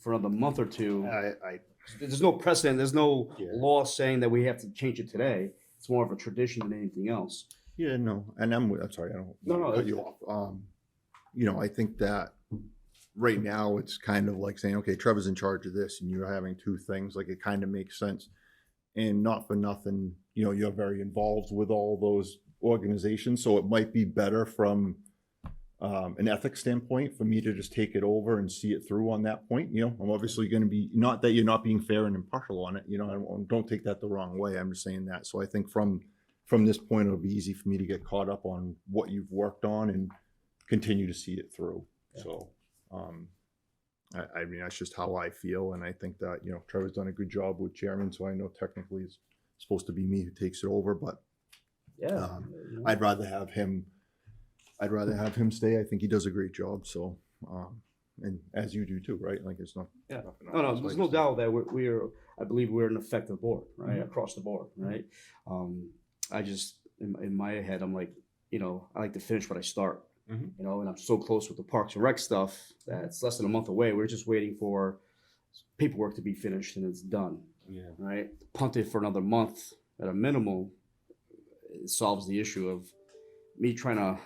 for another month or two. I, I, There's no precedent, there's no Uh, Yeah. law saying that we have to change it today. It's more of a tradition than anything else. yeah, no, and I'm, I'm sorry, I don't. No, wanna no, Cut it's- you off. Um, you know, I think that right now it's kind of like saying, okay, Trevor's in charge of this and you're having two things, like it kind of makes sense. And not for nothing, you know, you're very involved with all those organizations, so it might be better from um, an ethics standpoint for me to just take it over and see it through on that point. You know, I'm obviously going to be not that you're not being fair and impartial on it. You know, I don't, don't take that the wrong way. I'm just saying that. So I think from from this point, it'll be easy for me to get caught up on what you've worked on and continue to see it through. So, um, I, I mean, that's just how I feel, and I think that you know Trevor's done a good job with chairman. So I know technically it's supposed to be me who takes it over, but Yeah. Um, I'd rather have him. I'd rather have him stay. I think he does a great job. So, um, and as you do too, right? Like it's not. Yeah. nothing No, no, else, there's like no it's- doubt that we're, we're, I believe we're an effective board, right, Mhm. across the board, right? Um, I just, in, in my head, I'm like, you know, I like to finish what I start. Mhm. You know, and I'm so close with the Parks and Rec stuff that it's less than a month away. We're just waiting for paperwork to be finished and it's done, Yeah. right? Punt it for another month at a minimal it solves the issue of me trying to.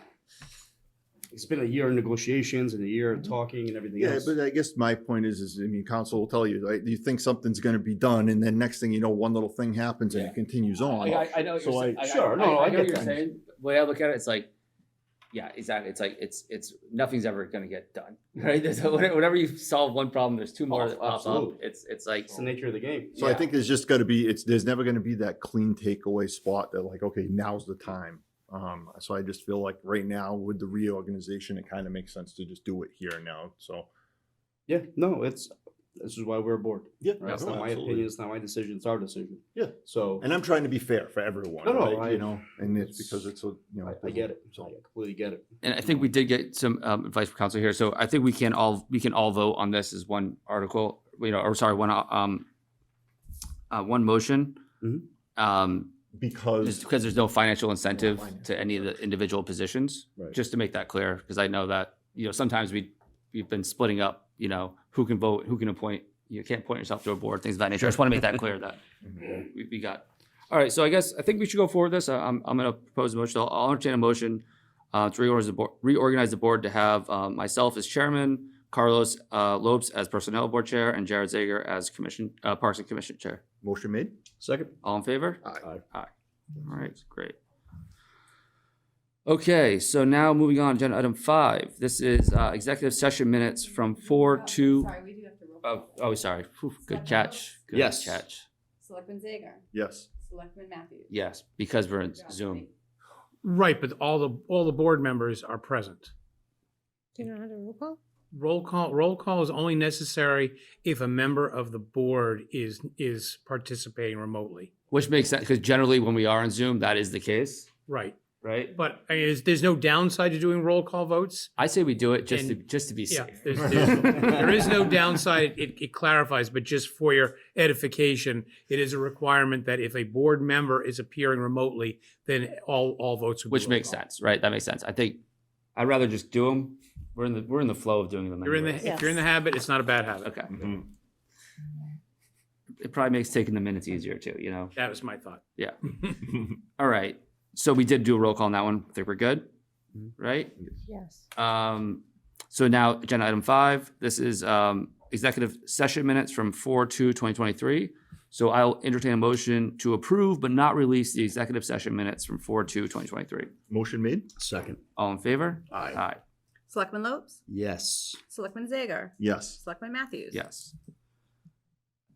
It's been a year of negotiations and a year of talking and everything Mm-hmm. Yeah, else. but I guess my point is, is I mean, council will tell you, like, you think something's going to be done, and then next thing you know, one little thing happens and Yeah. it continues I, on. I, I know what So you're I- saying. I, Sure, I, no, no, I I, know get what you're that. saying. The way I look at it, it's like, yeah, exactly. It's like it's it's nothing's ever gonna get done, right? There's, whenever you solve one problem, there's two more Oh, that pop up. absolutely. It's it's like it's the nature of the game. So I Yeah. think there's just got to be it's there's never going to be that clean takeaway spot that like okay now's the time. Um, so I just feel like right now with the reorganization, it kind of makes sense to just do it here and now. So Yeah, no, it's this is why we're aboard. yeah, Right? It's not my opinion. It's not my decision. It's our decision. Yeah. So And I'm trying to be fair for everyone, No, no, right? I- you know, and it's because it's a you know I, I get it. I So completely get it. and I think we did get some um, advice from council here. So I think we can all we can all vote on this as one article, you know, or sorry, one um, uh, one motion. Mhm. Um, just because because there's no financial incentive financial to any of the incentive. individual positions. right. just to make that clear, because I know that, you know, sometimes we, we've been splitting up, you know, who can vote, who can appoint, you can't appoint yourself to a board, things of that nature. I just want to make that clear that Mhm. we, we got. All right, so I guess, I think we should go forward with this. I- I'm, I'm going to propose a motion. I'll- I'll entertain a motion uh, to reorganize the board, reorganize the board to have uh, myself as chairman, Carlos uh, Lopes as personnel board chair, and Jared Zager as commission, uh, Parks and Commission chair. motion made. Second. All in favor? Aye. All right, great. Okay, so now moving on, agenda item five. This is uh, executive session minutes from four Oh, to, Sorry, we do have to roll. oh, call. oh, sorry. Phew, Good Seven. catch. Good Yes. Catch. Selectman Zager, Yes. Selectman Matthews. Yes, because we're in Johnson. Zoom. Right, but all the, all the board members are present. Do you know how to roll call? Roll call, roll call is only necessary if a member of the board is, is participating remotely. Which makes sense, because generally when we are on Zoom, that is the case, Right, right? but I mean, there's, there's no downside to doing roll call votes. I say we do it just to, And- just to be Yeah, safe. there's, there's, there is no downside. It, it clarifies, but just for your edification, it is a requirement that if a board member is appearing remotely, then all, all votes would be Which roll makes call. sense, right? That makes sense. I think, I'd rather just do them. We're in the, we're in the flow of doing them. You're in anyways. the, if you're in the Yes. habit, it's not a bad habit. Okay. Mhm. Mm-hmm. It probably makes taking the minutes easier too, you know? That was my thought. Yeah. All right. So we did do a roll call on that one. I think we're good, right? Yes. Um, so now agenda item five, this is, um, executive session minutes from four two twenty twenty-three. So I'll entertain a motion to approve but not release the executive session minutes from four two twenty twenty-three. Motion made. Second. All in favor? Aye. Aye. Selectman Lopes, Yes. Selectman Zager, Yes. Selectman Matthews. Yes.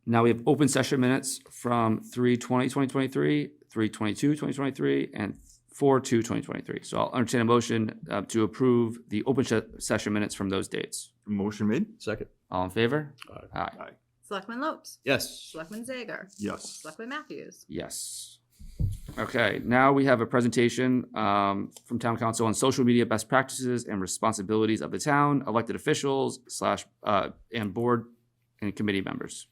Now we have open session minutes from three twenty twenty twenty-three, three twenty-two twenty twenty-three, and four two twenty twenty-three. So I'll entertain a motion uh, to approve the open se- session minutes from those dates. Motion made. Second. All in favor? Aye. Aye. Selectman Lopes, Yes. Selectman Zager, Yes. Selectman Matthews. Yes. Okay, now we have a presentation um, from Town Council on social media best practices and responsibilities of the town, elected officials slash, uh, and board and committee members.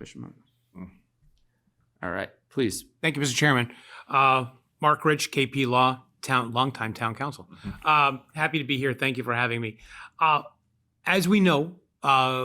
Bishop. All right, please. Thank you, Mr. Chairman. Uh, Mark Rich, KP Law, town, longtime town council. Um, Happy to be here. Thank you for having me. Uh, As we know, uh,